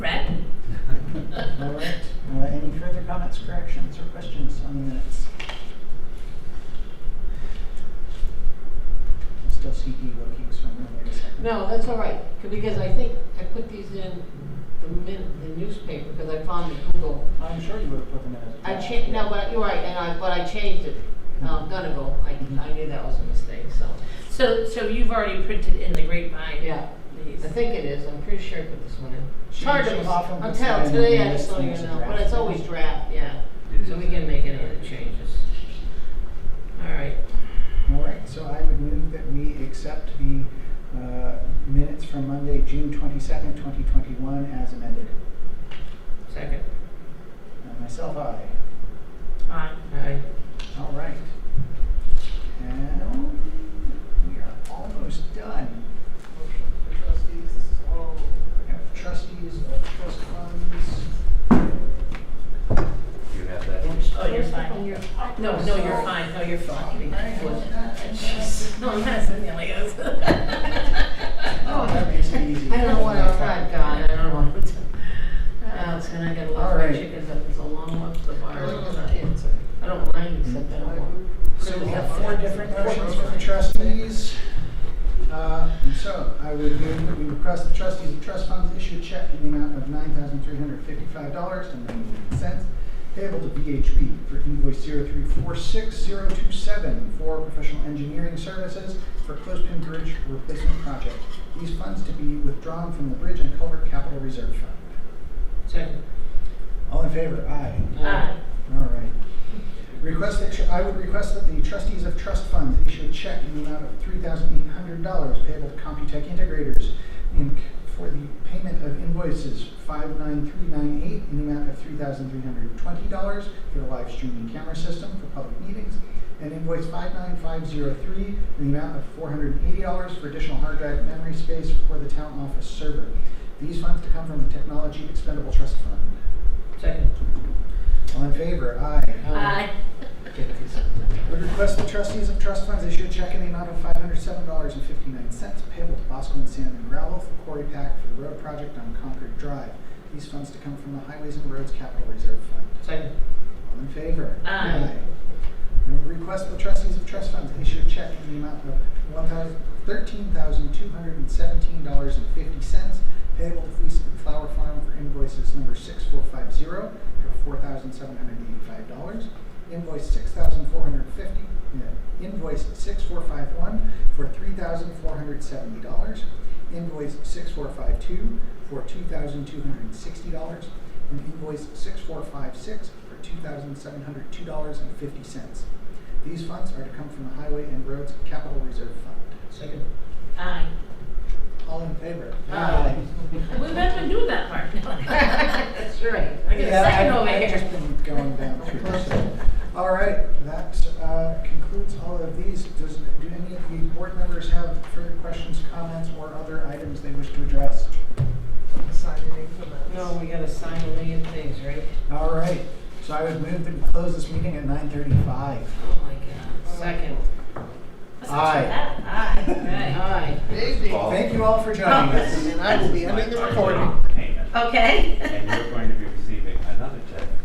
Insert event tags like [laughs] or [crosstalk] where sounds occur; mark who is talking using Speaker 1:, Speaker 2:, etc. Speaker 1: comments, corrections, or questions on the minutes? I Still see E looking, so I'm gonna wait a second.
Speaker 2: No, that's all right, c- because I think I put these in the min, the newspaper, because I found the Google.
Speaker 1: I'm sure you would have put the minutes.
Speaker 2: I changed, no, but you're right, and I, but I changed it, um, Donegal, I, I knew that was a mistake, so.
Speaker 3: So, so you've already printed in the grapevine?
Speaker 2: Yeah,
Speaker 3: These.
Speaker 2: I think it is, I'm pretty sure I put this one in. It's
Speaker 1: She-
Speaker 2: hard to,
Speaker 1: she often
Speaker 2: I'm
Speaker 1: puts that
Speaker 2: telling,
Speaker 1: in
Speaker 2: today
Speaker 1: when
Speaker 2: I
Speaker 1: it's
Speaker 2: just don't
Speaker 1: things
Speaker 2: even
Speaker 1: are
Speaker 2: know, but it's
Speaker 1: drafted.
Speaker 2: always draft, yeah,
Speaker 4: It
Speaker 2: so
Speaker 4: is.
Speaker 2: we can make any other changes. All right,
Speaker 1: All right, so I would move that we accept the uh, minutes from Monday, June twenty-second, twenty twenty-one as amended.
Speaker 2: second,
Speaker 1: And myself, aye.
Speaker 3: Aye.
Speaker 2: aye.
Speaker 1: All right. And we are almost done.
Speaker 5: Motion for trustees, this is all
Speaker 1: We have trustees of trust funds.
Speaker 4: You have that?
Speaker 3: Oh, you're fine. No, no, you're fine, no, you're fine. No, I'm not sitting there like this. [laughs]
Speaker 1: Oh, that makes it easy.
Speaker 2: I don't want to ride, God, I don't want to. Oh, it's gonna get a lot
Speaker 1: All
Speaker 2: of fried
Speaker 1: right.
Speaker 2: chickens up, it's a long walk to the bar.
Speaker 5: It's
Speaker 2: I don't mind, except I don't want.
Speaker 1: So we have four different motions from the trustees. Uh, and So I would move that we request the trustees of trust funds issue a check in the amount of nine thousand three hundred fifty-five dollars and ninety-eight cents payable to VHB for invoice zero three four six zero two seven for professional engineering services for Closepin Bridge replacement project. These funds to be withdrawn from the Bridge and Culvert Capital Reserve Fund.
Speaker 2: Second.
Speaker 1: All in favor? Aye.
Speaker 3: Aye.
Speaker 1: All right. Request that, tr- I would request that the trustees of trust funds issue a check in the amount of three thousand eight hundred dollars payable to Computech Integrators Inc. for the payment of invoices five nine three nine eight in the amount of three thousand three hundred twenty dollars for the live streaming camera system for public meetings, and invoice five nine five zero three in the amount of four hundred eighty dollars for additional hard drive memory space for the town office server. These funds to come from the Technology Expendable Trust Fund.
Speaker 2: Second.
Speaker 1: All in favor? Aye.
Speaker 3: Aye.
Speaker 1: We request the trustees of trust funds issue a check in the amount of five hundred seven dollars and fifty-nine cents payable to Bosco and Sand and Gravel for quarry pack for the road project on Concord Drive. These funds to come from the Highways and Roads Capital Reserve Fund.
Speaker 2: Second.
Speaker 1: All in favor?
Speaker 3: Aye.
Speaker 1: And we request the trustees of trust funds issue a check in the amount of one thousand, thirteen thousand two hundred and seventeen dollars and fifty cents payable to Fleece and Flower Farm for invoices number six four five zero for four thousand seven hundred and eighty-five dollars. Invoice six thousand four hundred and fifty, invoice six four five one for three thousand four hundred seventy dollars. Invoice six four five two for two thousand two hundred and sixty dollars. And invoice six four five six for two thousand seven hundred two dollars and fifty cents. These funds are to come from the Highway and Roads Capital Reserve Fund.
Speaker 2: Second.
Speaker 3: Aye.
Speaker 1: All in favor? Ah.
Speaker 2: Aye.
Speaker 3: We better do that [laughs] Oh part.
Speaker 2: [laughs] That's right.
Speaker 3: I
Speaker 1: [laughs]
Speaker 3: get a
Speaker 1: Yeah,
Speaker 3: second
Speaker 1: I've-
Speaker 3: over
Speaker 1: I've just
Speaker 3: here.
Speaker 1: been
Speaker 3: [laughs]
Speaker 1: going down through, so. All right, that uh, concludes all of these. Does, do any of the board members have further questions, comments, or other items they wish to address?
Speaker 5: signing for that.
Speaker 2: No, we gotta sign a million things, right?
Speaker 1: All right, so I would move that we close this meeting at nine thirty-five.
Speaker 2: Oh, my God. Second.
Speaker 3: That's not
Speaker 1: Aye.
Speaker 3: too bad. Aye.
Speaker 2: Aye.
Speaker 5: Maybe.
Speaker 4: Paul.
Speaker 1: Thank you all for joining
Speaker 3: [laughs]
Speaker 1: us.
Speaker 5: And I will be ending the recording.
Speaker 4: Payment.
Speaker 3: Aye. Okay.
Speaker 4: And you're going to